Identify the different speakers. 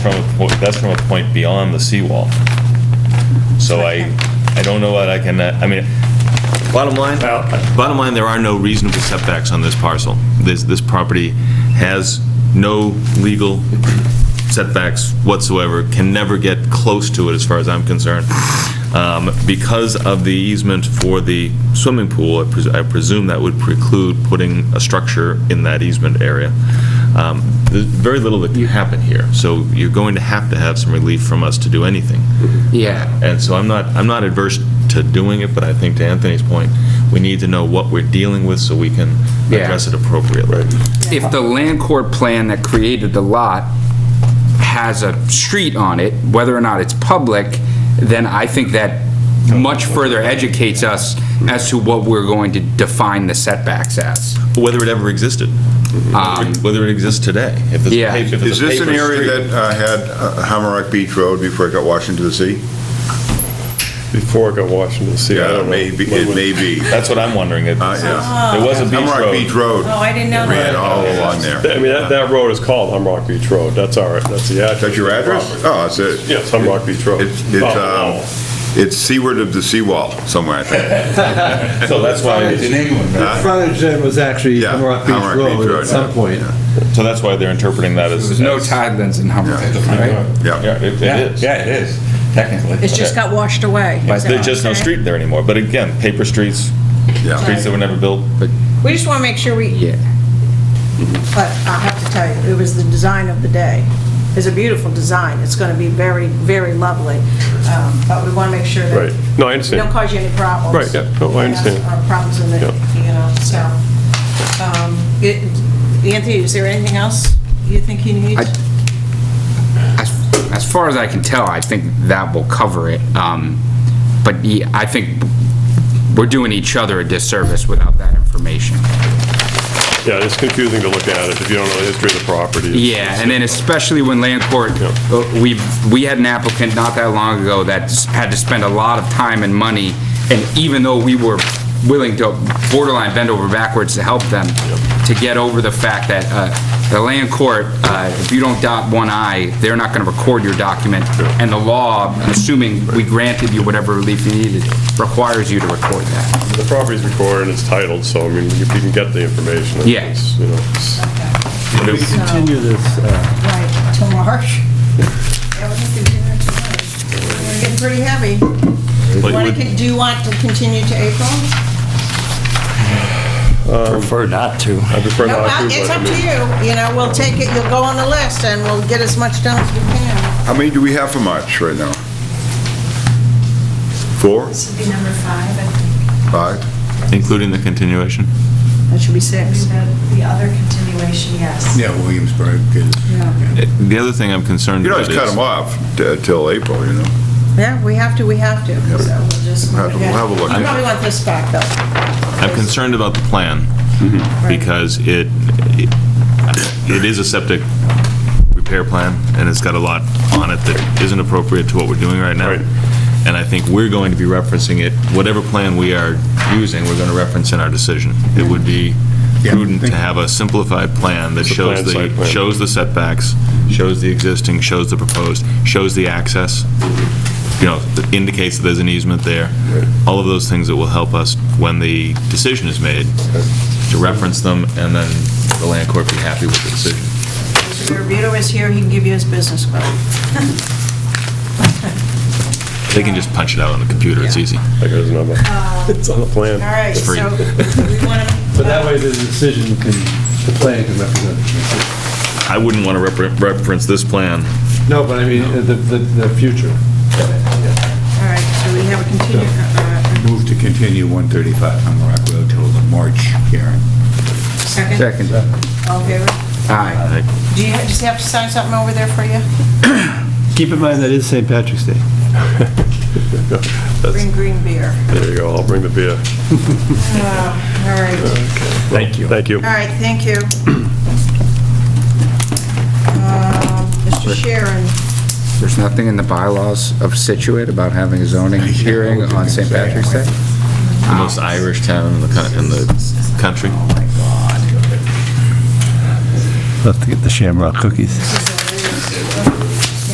Speaker 1: from, a po- that's from a point beyond the seawall. So I, I don't know what I can, uh, I mean, bottom line,
Speaker 2: Well-
Speaker 1: bottom line, there are no reasonable setbacks on this parcel. This, this property has no legal setbacks whatsoever, can never get close to it as far as I'm concerned. Um, Because of the easement for the swimming pool, I pres- I presume that would preclude putting a structure in that easement area. Um, There's very little that can happen here, so you're going to have to have some relief from us to do anything.
Speaker 3: Yeah,
Speaker 1: And so I'm not, I'm not adverse to doing it, but I think to Anthony's point, we need to know what we're dealing with so we can
Speaker 3: Yeah.
Speaker 1: address it appropriately.
Speaker 3: if the land court plan that created the lot has a street on it, whether or not it's public, then I think that much further educates us as to what we're going to define the setbacks as.
Speaker 1: Whether it ever existed, whether it exists today. if it's a
Speaker 3: Um, Yeah.
Speaker 1: pa- if it's a
Speaker 4: Is this an
Speaker 1: paper
Speaker 4: area
Speaker 1: street.
Speaker 4: that uh, had uh, Hammerock Beach Road before it got washed into the sea?
Speaker 2: Before I got Washington DC. I don't know.
Speaker 4: Maybe, it may be.
Speaker 1: That's what I'm wondering. It
Speaker 4: Uh, yeah.
Speaker 1: there was a beach
Speaker 4: Hammerock Beach
Speaker 1: road.
Speaker 4: Road
Speaker 5: Oh, I didn't know
Speaker 4: ran
Speaker 5: that.
Speaker 4: all along there.
Speaker 2: I mean, that, that road is called Humrock Beach Road. That's our, that's the address.
Speaker 4: That's your address? Oh, that's it.
Speaker 2: Yes, Humrock Beach Road.
Speaker 4: It's,
Speaker 2: Oh,
Speaker 4: it's,
Speaker 2: no.
Speaker 4: um, it's seaward of the seawall somewhere, I think.
Speaker 1: So that's why,
Speaker 6: Frontage in England,
Speaker 4: Huh?
Speaker 6: The frontage then was actually
Speaker 4: Yeah,
Speaker 6: Hummerock Beach
Speaker 4: Hammerock Beach
Speaker 6: Road
Speaker 4: Road,
Speaker 6: at some
Speaker 4: yeah.
Speaker 6: point.
Speaker 1: so that's why they're interpreting that as.
Speaker 3: There's no
Speaker 1: as-
Speaker 3: tidelands in Hummerock, right?
Speaker 1: Yeah,
Speaker 4: Yeah.
Speaker 1: it-
Speaker 6: Yeah,
Speaker 1: it is.
Speaker 6: Yeah, it is, technically.
Speaker 5: It's just got washed away. Is that
Speaker 1: There's just no
Speaker 5: okay?
Speaker 1: street there anymore. But again, paper streets,
Speaker 4: Yeah.
Speaker 1: streets that were never built.
Speaker 5: We just want to make sure we,
Speaker 3: Yeah.
Speaker 2: Mm-hmm.
Speaker 5: but I have to tell you, it was the design of the day. It's a beautiful design. It's going to be very, very lovely. Um, But we want to make sure that.
Speaker 2: Right. No, I
Speaker 5: we Don't
Speaker 2: understand.
Speaker 5: cause you any problems.
Speaker 2: Right, yeah. No, I understand.
Speaker 5: Or problems in the,
Speaker 2: Yeah.
Speaker 5: you know, so. um, it- Anthony, is there anything else you think he needs?
Speaker 3: I- As as far as I can tell, I think that will cover it. Um, But yeah, I think we're doing each other a disservice without that information.
Speaker 2: Yeah, it's confusing to look at it if you don't know the history of the property.
Speaker 3: Yeah, and then especially when land court,
Speaker 2: Yeah.
Speaker 3: uh, we, we had an applicant not that long ago that s- had to spend a lot of time and money, and even though we were willing to borderline bend over backwards to help them, to get over the fact that uh, the land court, uh, if you don't dot one i, they're not going to record your document, and the law, assuming we granted you whatever relief you needed, requires you to record that.
Speaker 2: The property's recorded and it's titled, so I mean, if you can get the information. it's,
Speaker 3: Yeah.
Speaker 2: You know, it's-
Speaker 6: We continue this, uh,
Speaker 5: Right, till March. Yeah, we can continue it tomorrow. We're getting pretty heavy. Wanna con- Do you want to continue to April?
Speaker 7: Prefer not to.
Speaker 2: I prefer
Speaker 5: No,
Speaker 2: not
Speaker 5: I-
Speaker 2: to.
Speaker 5: It's
Speaker 2: but I
Speaker 5: up to
Speaker 2: mean-
Speaker 5: you, you know, we'll take it, you'll go on the list, and we'll get as much done as we can.
Speaker 4: How many do we have for March right now? Four?
Speaker 8: This would be number five, I think.
Speaker 4: Five?
Speaker 1: Including the continuation?
Speaker 5: That should be
Speaker 8: Maybe
Speaker 5: six.
Speaker 8: the, the other continuation, yes.
Speaker 9: Yeah, Williamsburg is.
Speaker 1: The other thing I'm concerned
Speaker 4: You
Speaker 1: about
Speaker 4: don't
Speaker 1: is.
Speaker 4: just cut them off t- till April, you know?
Speaker 5: Yeah, we have to, we have to, so we'll just.
Speaker 4: We'll have to- we'll have a look.
Speaker 5: You probably want this back, though.
Speaker 1: I'm concerned about the plan, because it, it is a septic repair plan, and it's got a lot on it that isn't appropriate to what we're doing right now.
Speaker 2: Right.
Speaker 1: And I think we're going to be referencing it, whatever plan we are using, we're going to reference in our decision. It would be
Speaker 9: Yeah.
Speaker 1: prudent to have a simplified plan that
Speaker 2: It's a
Speaker 1: shows
Speaker 2: planned site
Speaker 1: the,
Speaker 2: plan.
Speaker 1: shows the setbacks, shows the existing, shows the proposed, shows the access, you know, that indicates that there's an easement there. All of those things that will help us when the decision is made, to reference them, and then the land court be happy with the decision.
Speaker 5: Mr. Rubito is here, he can give you his business card.
Speaker 1: They can just punch it out on the computer, it's easy.
Speaker 2: I got his number.
Speaker 5: Uh,
Speaker 2: It's on the plan.
Speaker 5: All right, so,
Speaker 1: free.
Speaker 5: we want to.
Speaker 6: but that way the decision can, the plan can represent. the decision.
Speaker 1: I wouldn't want to reference this plan.
Speaker 6: No, but I mean, uh, the, the, the future.
Speaker 5: All right, so we have a continue, uh,
Speaker 9: Move to continue 135 Hummerock Road till the March hearing.
Speaker 5: uh, second,
Speaker 3: Second.
Speaker 5: all in favor?
Speaker 3: Aye.
Speaker 5: Do you, does he have to sign something over there for you?
Speaker 6: Keep in mind, that is St. Patrick's Day.
Speaker 2: That's-
Speaker 5: Bring green beer. Uh,
Speaker 2: There you go. I'll bring the beer.
Speaker 5: All right,
Speaker 2: Thank you. Thank you.
Speaker 5: all right, thank you. Uh, Mr. Sharon,
Speaker 3: There's nothing in the bylaws of Situate about having a zoning hearing on St. Patrick's Day?
Speaker 1: The most Irish town in the, coun- in the country.
Speaker 6: Love to get the shamrock cookies.
Speaker 5: uh,